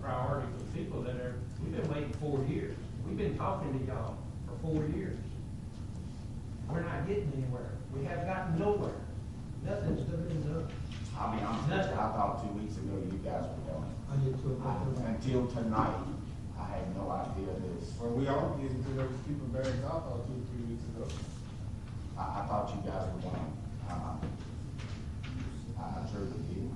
sorry for the people that are, we've been waiting four years. We've been talking to y'all for four years. We're not getting anywhere. We have gotten nowhere. Nothing's been done. I'll be honest with you, I thought two weeks ago you guys were going. I did too. I- Until tonight, I had no idea this. Well, we all getting to those people bags off out two, or three weeks ago. I, I thought you guys were going. Uh, I I truly did.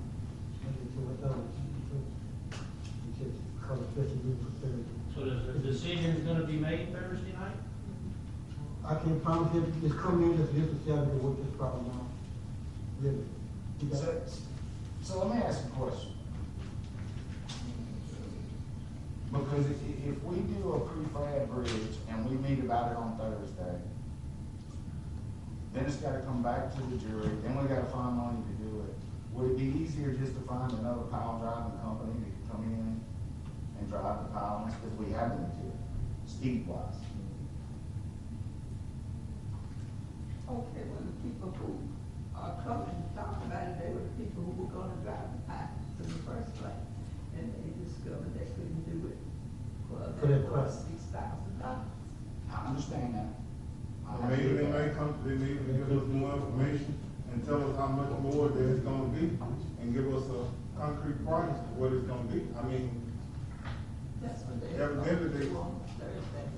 So the decision's gonna be made Thursday night? I can promise you, it's coming in, it's just a seven, what this problem now. Really. You got- So, so let me ask you a question. Because if, if we do a prefab bridge and we meet about it on Thursday, then it's gotta come back to the jury, then we gotta find money to do it. Would it be easier just to find another pile driving company that could come in and drive the piles, because we have the material, speed wise? Okay, well, the people who are coming to talk about it, they were the people who were gonna drive the pipes in the first place. And they discovered they couldn't do it. Well, For that that price. was six thousand dollars. I understand that. I Maybe they understand that. may come, they may even give us more information and tell us how much more that it's gonna be and give us a concrete price of what it's gonna be. I mean, That's what they. Evidently, they- do on Thursday.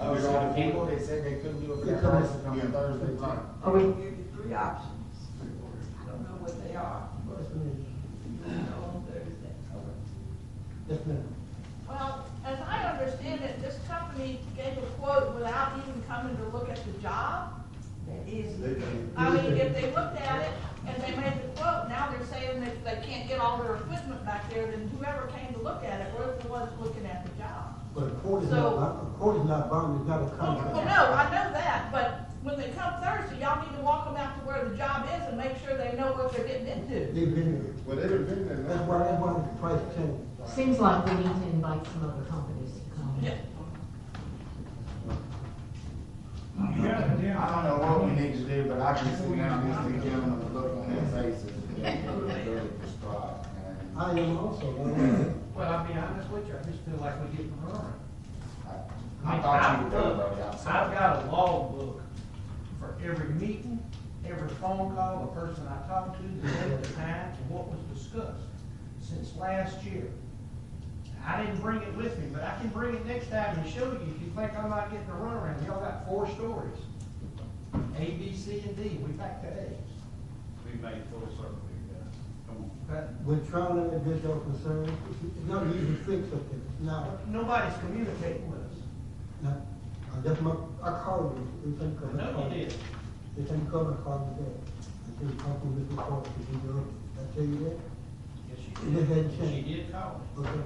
Oh, so the people that said they couldn't do it for that price is coming Thursday, too? I mean, They give you three options. I don't know what they are, but yes, ma'am. you know on Thursday. Yes, ma'am. Well, as I understand it, this company gave a quote without even coming to look at the job. That is. I mean, if they looked at it and they made the quote, now they're saying that they can't get all their equipment back there, then whoever came to look at it were the ones looking at the job. But a court is So- not, a court is not binding, it's not a Well, contract. well, no, I know that, but when they come Thursday, y'all need to walk them out to where the job is and make sure they know what they're getting into. They've been, well, they've been there. there. now. that's why, that's why the price changed. Seems like we need to invite some other companies to come. Yeah. I don't know what we need to do, but I can see now this two gentlemen with look on their faces that they were really distraught. and I- I am also, uh, Well, I'll be honest with you, I just feel like we're getting run. I thought you would go I've- right I've outside. got a logbook for every meeting, every phone call, the person I talked to, the date, the time, and what was discussed since last year. I didn't bring it with me, but I can bring it next time and show you if you think I'm not getting a runaround. Y'all got four stories. A, B, C, and D. We back to A. We made full circle here, guys. Come on. But when trying to address your concerns, it's not an easy fix up there. Now, nobody's communicating with us. now, I just, my- I called you, you think. No, you did. They can cover cost of that. I think talking with the court to do your, I tell you that, Yes, And it hadn't she did. changed. She did call me. okay.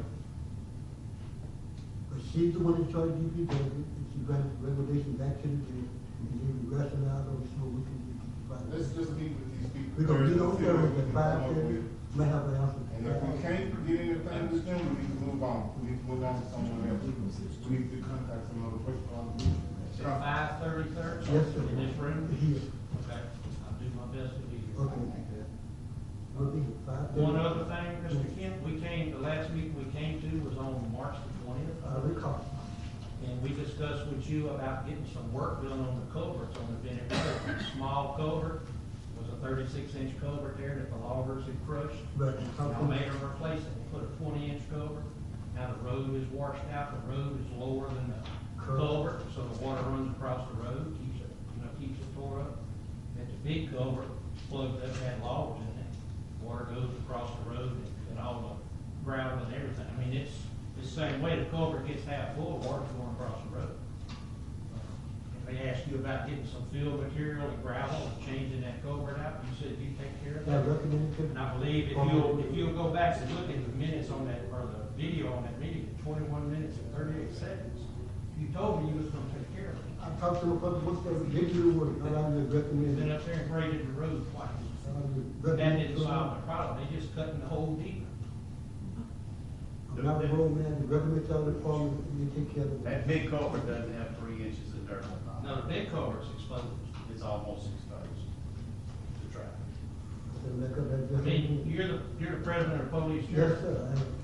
But she's the one in charge of DPW, and she brings regulation back to the jail, and then we rationalize on so we can do the Let's fight. just meet with these people. We gonna get over Thursday, see there what we with the can come five up thirty, with. may have an And if we answer. can't get anything with them, we need to move on, we need to move on to someone else. We need to contact some other person on the It's group. five thirty thirty? Yes, sir. In this room? Here, Okay, I'll do my best to be here. okay, we'll be here five thirty. One other thing, Mr. Kent, we came, the last meeting we came to was on March the I twentieth, recall, and we discussed with you about getting some work done on the culverts on the Bennett Road. Small culvert, was a thirty-six inch culvert there that the loggers had crushed. but. I made them replace it, They put a twenty inch culvert. Now the road is washed out, the road is lower than the Correct. culvert, so the water runs across the road, keeps it, you know, keeps it tore up. And the big culvert plugged up, had logs in it, water goes across the road and, and all the gravel and everything. I mean, it's, it's the same way the culvert gets half full, water's going across the road. If they ask you about getting some fill material and gravel and changing that culvert out, you said you take care of that. I recommend it. And I believe if you'll, if you'll go back and look at the minutes on that, or the video on that meeting, twenty-one minutes and thirty-eight seconds, you told me you was gonna take care of it. I talked to the public, what's that, get you the word, and I would You've recommend been it. up there and graded the road twice. I would That recommend didn't it. solve the problem, they just cutting the hole deeper. I'm not a road man, the government tell the farmers, you take care of That it. big culvert doesn't have three inches of dirt on Now, the big culvert's exposed. it. It's almost exposed to traffic. So make up I that mean, difference. you're the, you're the president of the police Yes, sheriff. sir, I am.